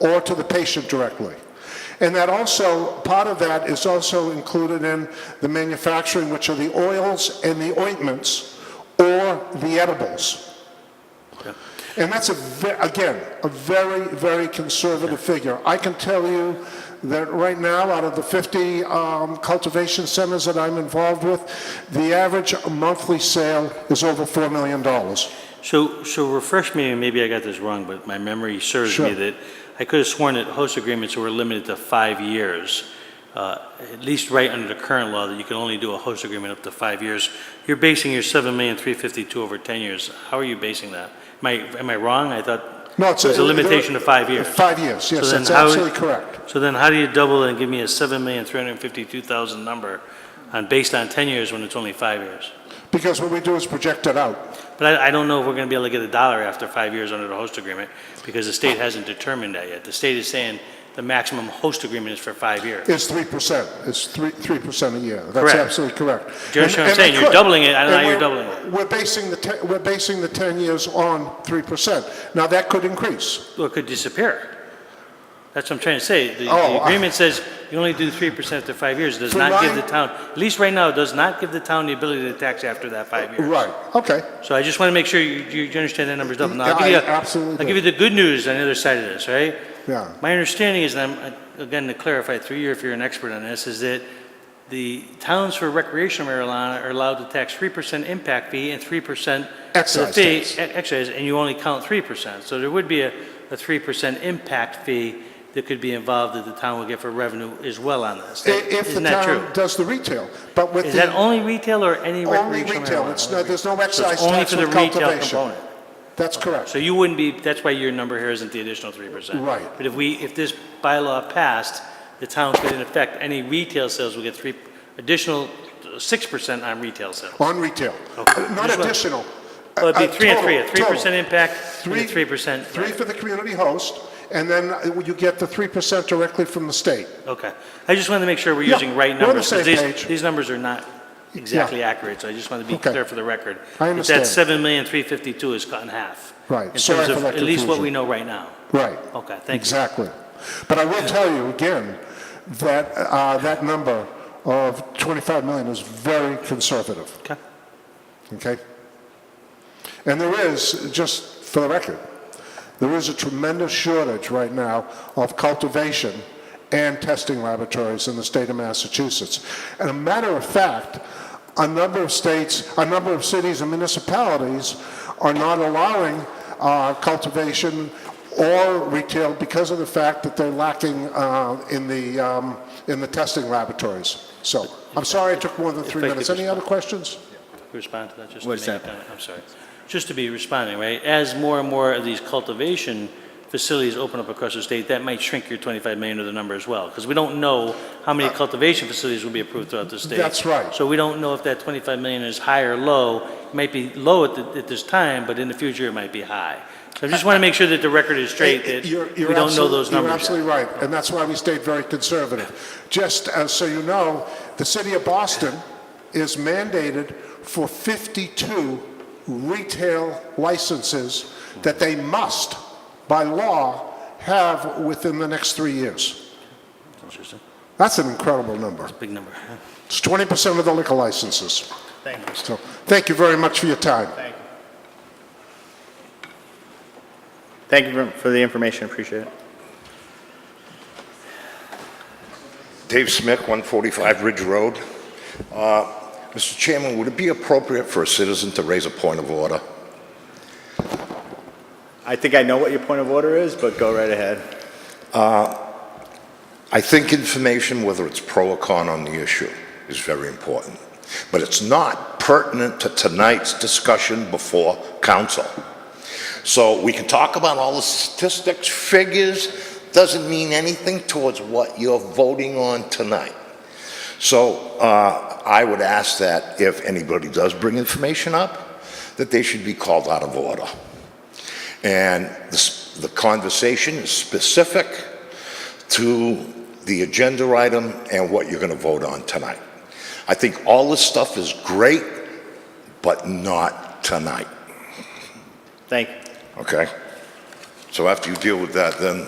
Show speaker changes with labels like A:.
A: or to the patient directly. And that also, part of that is also included in the manufacturing, which are the oils and the ointments or the edibles. And that's a, ve- again, a very, very conservative figure. I can tell you that right now, out of the 50 um, cultivation centers that I'm involved with, the average monthly sale is over $4 million.
B: So, so refresh me, and maybe I got this wrong, but my memory serves me
A: Sure.
B: that I could have sworn that host agreements were limited to five years, uh, at least right under the current law, that you can only do a host agreement up to five years. You're basing your 7,352,000 over 10 years. How are you basing that? Am I, am I wrong? I thought
A: No, it's
B: it was a limitation of five years.
A: Five years, yes,
B: So then
A: that's
B: how-
A: absolutely correct.
B: So then how do you double and give me a 7,352,000 number on, based on 10 years when it's only five years?
A: Because what we do is project it out.
B: But I, I don't know if we're gonna be able to get a dollar after five years under the host agreement, because the state hasn't determined that yet. The state is saying the maximum host agreement is for five years.
A: It's 3%. It's 3, 3% a year. That's
B: Correct.
A: absolutely correct.
B: Do you understand what I'm
A: And- and
B: saying?
A: we
B: You're
A: could.
B: doubling it, I don't know
A: And
B: how you're
A: we're-
B: doubling it.
A: We're basing the, te- we're basing the 10 years on 3%. Now, that could increase.
B: Well, it could disappear. That's what I'm trying to say. The,
A: Oh,
B: the
A: I-
B: agreement says you only do three percent after five years, It does
A: For
B: not give
A: mine-
B: the town, at least right now, it does not give the town the ability to tax after that five years.
A: Right, okay.
B: So I just want to make sure you, you you understand that number's double. Now,
A: Yeah,
B: I'll give you,
A: I
B: a-
A: absolutely
B: I'll give you the good news on the other side of this, right?
A: Yeah.
B: My understanding is, and I'm, again, to clarify through you if you're an expert on this, is that the towns for recreational marijuana are allowed to tax 3% impact fee and 3% to the
A: Excise
B: fee-
A: tax.
B: e- Excise, and you only count 3%. So there would be a, a 3% impact fee that could be involved that the town would get for revenue as well on this.
A: I- If the
B: Isn't that true?
A: town does the retail, but with
B: Is that
A: the,
B: only retail or any
A: only
B: recreational marijuana?
A: retail, it's no, there's no
B: So it's
A: excise
B: only
A: tax
B: for the
A: on
B: retail
A: cultivation.
B: component.
A: That's correct.
B: So you wouldn't be, that's why your number here isn't the additional 3%.
A: Right.
B: But if we, if this bylaw passed, the town could in effect, any retail sales would get 3, additional 6% on retail sales.
A: On retail,
B: Okay.
A: not
B: Just what-
A: additional.
B: Well, it'd
A: Uh,
B: be
A: uh,
B: 3 and 3, a
A: total, total.
B: 3% impact and a
A: Three-
B: 3%.
A: Three
B: right.
A: for the community host, and then uh, you get the 3% directly from the state.
B: Okay. I just wanted to make sure we're
A: Yeah,
B: using right
A: we're on the
B: numbers.
A: same
B: 'cause these-
A: page.
B: These numbers are not exactly accurate, so I just want to be
A: Okay.
B: clear for the record.
A: I understand.
B: That 7,352,000 is cut in half.
A: Right.
B: In
A: Sorry
B: terms
A: for
B: of
A: that
B: at least what
A: confusion.
B: we know right now.
A: Right.
B: Okay, thank you.
A: Exactly. But I will tell you again, that, uh, that number of 25 million is very conservative,
B: Okay.
A: okay? And there is, just for the record, there is a tremendous shortage right now of cultivation and testing laboratories in the state of Massachusetts. And a matter of fact, a number of states, a number of cities and municipalities are not allowing uh, cultivation or retail because of the fact that they're lacking uh, in the, um, in the testing laboratories. So, I'm sorry I took more than three
B: If I could
A: minutes. Any other questions?
B: respond to that, just to
C: What
B: make
C: is
B: a
C: that?
B: comment? I'm sorry. Just to be responding, right, as more and more of these cultivation facilities open up across the state, that might shrink your 25 million to the number as well, because we don't know how many cultivation facilities will be approved throughout the state.
A: Uh, That's right.
B: So we don't know if that 25 million is high or low. It might be low at, the- at this time, but in the future, it might be high. So I just want to make sure that the record is straight, that
A: You're-
B: we
A: you're
B: don't know
A: absolute-
B: those numbers
A: You're
B: yet.
A: absolutely right, and that's why we stayed very conservative. Just as, so you know, the city of Boston is mandated for 52 retail licenses that they must, by law, have within the next three years.
B: Interesting.
A: That's an incredible number.
B: Big number.
A: It's 20% of the liquor licenses. Thank you. So, thank you very much for your time.
C: Thank you for- for the information, appreciate it.
D: Dave Smith, 145 Ridge Road. Uh, Mr. Chairman, would it be appropriate for a citizen to raise a point of order?
C: I think I know what your point of order is, but go right ahead.
D: I think information, whether it's pro or con on the issue, is very important, but it's not pertinent to tonight's discussion before council. So we can talk about all the statistics, figures, doesn't mean anything towards what you're voting on tonight. So uh, I would ask that if anybody does bring information up, that they should be called out of order. And the s- the conversation is specific to the agenda item and what you're going to vote on tonight. I think all this stuff is great, but not tonight,
C: Thank you.
D: okay? So after you deal with that, then